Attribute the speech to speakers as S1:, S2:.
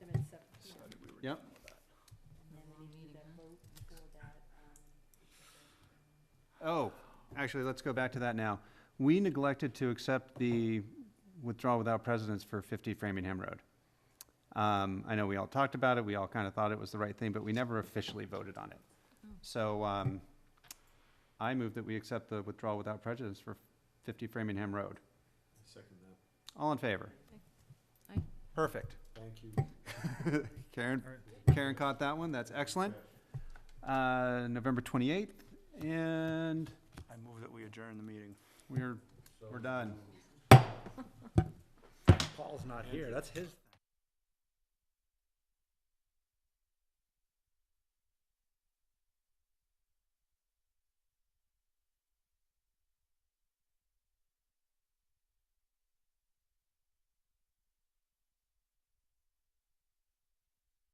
S1: Yep.
S2: And we need that vote before that, um,
S1: Oh, actually, let's go back to that now. We neglected to accept the withdrawal without precedence for 50 Framingham Road. Um, I know we all talked about it, we all kind of thought it was the right thing, but we never officially voted on it. So um, I move that we accept the withdrawal without prejudice for 50 Framingham Road.
S3: Second that.
S1: All in favor?
S2: Aye. Aye.
S1: Perfect.
S3: Thank you.
S1: Karen, Karen caught that one, that's excellent. Uh, November 28th, and
S4: I move that we adjourn the meeting.
S1: we're, we're done.
S5: Paul's not here, that's his